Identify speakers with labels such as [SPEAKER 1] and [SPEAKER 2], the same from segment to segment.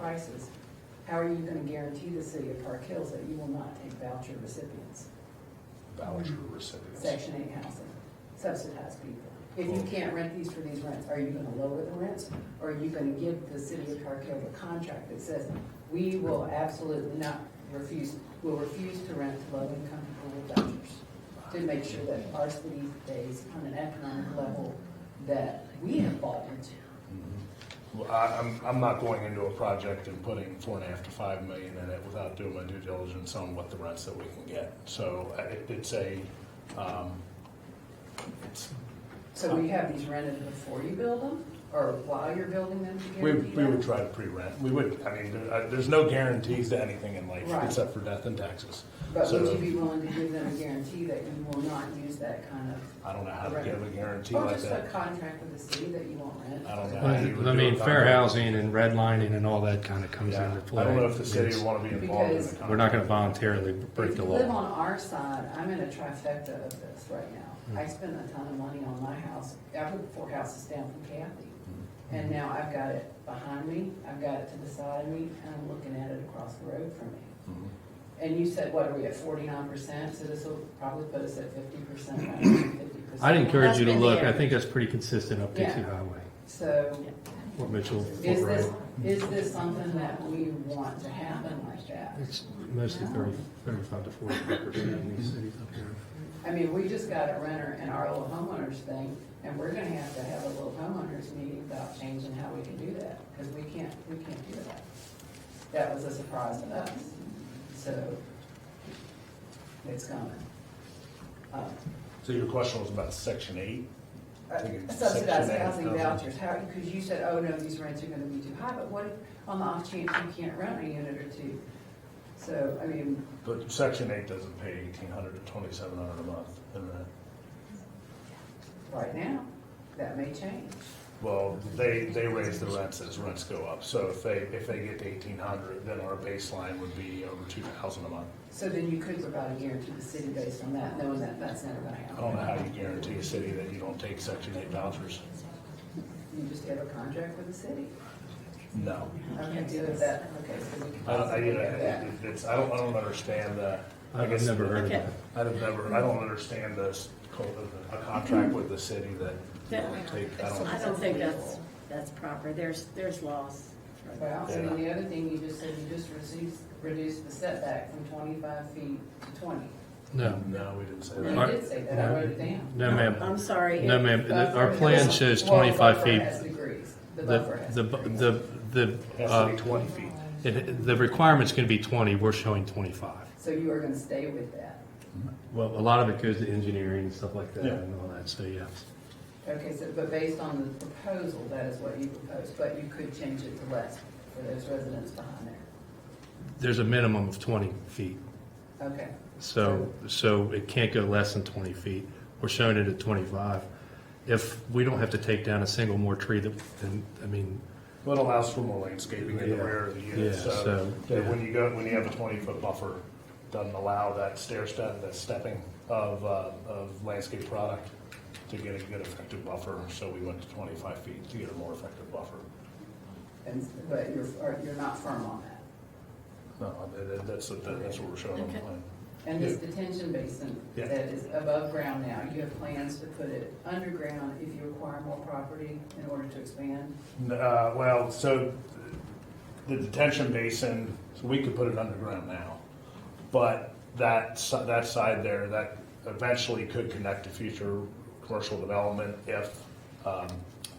[SPEAKER 1] prices, how are you gonna guarantee the city of Park Hills that you will not take voucher recipients,
[SPEAKER 2] voucher recipients.
[SPEAKER 1] section eight housing, subsidized people? If you can't rent these for these rents, are you gonna lower the rents? Or are you gonna give the city of Park Hills a contract that says, we will absolutely not refuse, will refuse to rent to low-income people with vouchers? To make sure that our city stays on an economic level that we have bought into.
[SPEAKER 2] Mm-hmm. Well, I, I'm, I'm not going into a project and putting four and a half to five million in it without doing my due diligence on what the rents that we can get. So uh, it, it's a, um, it's,
[SPEAKER 1] So we have these rented before you build them, or while you're building them to
[SPEAKER 2] we,
[SPEAKER 1] guarantee
[SPEAKER 2] we would
[SPEAKER 1] that?
[SPEAKER 2] try to pre-rent. We would, I mean, there, uh, there's no guarantees to anything in life
[SPEAKER 1] Right.
[SPEAKER 2] except for death and taxes.
[SPEAKER 1] But would
[SPEAKER 2] So
[SPEAKER 1] you be willing to give them a guarantee that you will not use that kind of,
[SPEAKER 2] I don't know how to
[SPEAKER 1] Right.
[SPEAKER 2] give a guarantee
[SPEAKER 1] or
[SPEAKER 2] like
[SPEAKER 1] just a
[SPEAKER 2] that.
[SPEAKER 1] contract with the city that you won't rent?
[SPEAKER 2] I don't know. how you would do
[SPEAKER 3] I
[SPEAKER 2] a
[SPEAKER 3] mean, fair
[SPEAKER 2] contract.
[SPEAKER 3] housing and redlining and all that kind of comes
[SPEAKER 2] Yeah.
[SPEAKER 3] into play.
[SPEAKER 2] I don't know if the city
[SPEAKER 3] It's-
[SPEAKER 2] would want to be involved in the
[SPEAKER 1] Because-
[SPEAKER 2] contract.
[SPEAKER 3] We're not gonna voluntarily break
[SPEAKER 1] If
[SPEAKER 3] the
[SPEAKER 1] you live
[SPEAKER 3] law.
[SPEAKER 1] on our side, I'm in a trifecta of this right
[SPEAKER 3] Hmm.
[SPEAKER 1] now. I spent a ton of money on my house. I put four houses down from Kathy. And
[SPEAKER 3] Hmm.
[SPEAKER 1] now I've got it behind me, I've got it to the side of me, and I'm looking at it across the road from me.
[SPEAKER 2] Mhm.
[SPEAKER 1] And you said, what, are we at forty-nine percent? So this will probably put us at fifty percent, fifty percent.
[SPEAKER 3] I'd encourage you to look, I think that's pretty consistent up
[SPEAKER 1] Yeah.
[SPEAKER 3] Dixie Highway,
[SPEAKER 1] So
[SPEAKER 3] Fort Mitchell, Fort
[SPEAKER 1] is this,
[SPEAKER 3] Wright.
[SPEAKER 1] is this something that we want to happen like that?
[SPEAKER 3] It's mostly thirty, thirty-five to forty-five percent in these cities up here.
[SPEAKER 1] I mean, we just got a renter and our little homeowners thing, and we're gonna have to have a little homeowners meeting about changing how we can do that, because we can't, we can't do that. That was a surprise to us, so it's coming. Uh,
[SPEAKER 2] So your question was about section eight? I think it's
[SPEAKER 1] Subsidized
[SPEAKER 2] Section eight
[SPEAKER 1] housing
[SPEAKER 2] housing.
[SPEAKER 1] vouchers, how, because you said, oh, no, these rents are gonna be too high, but what if, on the off chance you can't rent a unit or two? So, I mean,
[SPEAKER 2] But section eight doesn't pay eighteen hundred to twenty-seven hundred a month, and then,
[SPEAKER 1] right now, that may change.
[SPEAKER 2] well, they, they raise the rents as rents go up. So if they, if they get to eighteen hundred, then our baseline would be over two thousand a month.
[SPEAKER 1] So then you could provide a guarantee to the city based on that, knowing that that's never gonna
[SPEAKER 2] I don't
[SPEAKER 1] happen.
[SPEAKER 2] know how you guarantee a city that you don't take section eight vouchers.
[SPEAKER 1] You just have a contract with the city.
[SPEAKER 2] No.
[SPEAKER 1] Okay, so is that, okay, so we can
[SPEAKER 2] I don't, I,
[SPEAKER 1] possibly
[SPEAKER 2] you know,
[SPEAKER 1] have that.
[SPEAKER 2] it- it's, I don't, I don't understand the. I
[SPEAKER 3] I've
[SPEAKER 2] guess-
[SPEAKER 3] never heard of
[SPEAKER 4] Okay.
[SPEAKER 3] that.
[SPEAKER 2] I'd have never, I don't understand this, co- a contract with the city that you don't take, I don't.
[SPEAKER 4] I don't think that's, that's proper. There's, there's laws. for
[SPEAKER 1] Well,
[SPEAKER 4] that.
[SPEAKER 1] and then the other thing, you just said you just reduced, reduced the setback from twenty-five feet to twenty.
[SPEAKER 3] No, Uh,
[SPEAKER 2] No, we didn't say
[SPEAKER 1] You
[SPEAKER 2] that.
[SPEAKER 1] did say that, I wrote it down.
[SPEAKER 3] no ma'am,
[SPEAKER 4] I'm sorry.
[SPEAKER 3] no ma'am, The- our plan says twenty-five
[SPEAKER 1] Well,
[SPEAKER 3] feet.
[SPEAKER 1] buffer has degrees, the buffer
[SPEAKER 3] The,
[SPEAKER 1] has.
[SPEAKER 3] the,
[SPEAKER 1] degrees.
[SPEAKER 3] the, the,
[SPEAKER 2] It has to
[SPEAKER 3] uh,
[SPEAKER 2] be twenty feet.
[SPEAKER 3] it- the requirement's gonna be twenty, we're showing twenty-five.
[SPEAKER 1] So you are gonna stay with that.
[SPEAKER 3] Well, a lot of it goes to engineering and stuff like that
[SPEAKER 2] Yeah.
[SPEAKER 3] and all that, so yes.
[SPEAKER 1] Okay, so, but based on the proposal, that is what you proposed, but you could change it to less for those residents behind there.
[SPEAKER 3] There's a minimum of twenty feet,
[SPEAKER 1] Okay,
[SPEAKER 3] so, so it can't go less than twenty feet. We're showing it at twenty-five. If we don't have to take down a single more tree that, then, I mean,
[SPEAKER 2] Well, it allows for more landscaping in the
[SPEAKER 3] Yeah.
[SPEAKER 2] rear of the unit,
[SPEAKER 3] Yeah,
[SPEAKER 2] so
[SPEAKER 3] so,
[SPEAKER 2] that
[SPEAKER 3] yeah.
[SPEAKER 2] when you go, when you have a twenty-foot buffer, doesn't allow that stair step, that stepping of, uh, of landscape product to get a good effective buffer, so we went to twenty-five feet to get a more effective buffer.
[SPEAKER 1] and, but you're, or you're not firm on that.
[SPEAKER 2] No, Oh, that- that- that's, what- that's what we're showing on the
[SPEAKER 4] Okay.
[SPEAKER 2] plan.
[SPEAKER 1] And this detention basin
[SPEAKER 2] Yeah.
[SPEAKER 1] that is above ground now, you have plans to put it underground if you acquire more property in order to expand?
[SPEAKER 2] Uh, well, so the detention basin, so we could put it underground now, but that, si- that side there, that eventually could connect to future commercial development if um,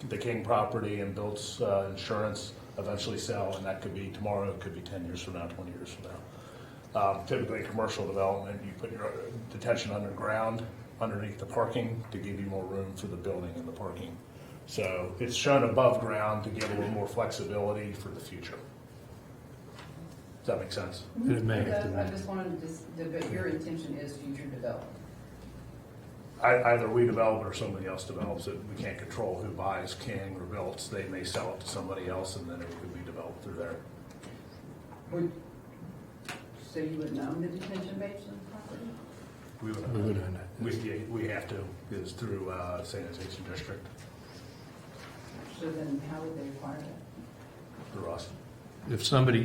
[SPEAKER 2] the King property and Built's uh, insurance eventually sell, and that could be tomorrow, it could be ten years from now, twenty years from now. Um, Typically, commercial development, you put your uh, detention underground, underneath the parking, to give you more room for the building and the parking. So it's shown above ground to give a little more flexibility for the future. Does that make sense?
[SPEAKER 3] it may have
[SPEAKER 1] Because I
[SPEAKER 3] to.
[SPEAKER 1] just wanted to, just- but your intention is future development.
[SPEAKER 2] I- Either we develop it or somebody else develops it. We can't control who buys King or Built's. They may sell it to somebody else and then it could be developed through there.
[SPEAKER 1] Would, so you would own the detention basin property?
[SPEAKER 2] We would,
[SPEAKER 3] We would own it.
[SPEAKER 2] we, we have to, is through uh, sanitation district,
[SPEAKER 1] So then how would they acquire that?
[SPEAKER 2] through us.
[SPEAKER 3] if somebody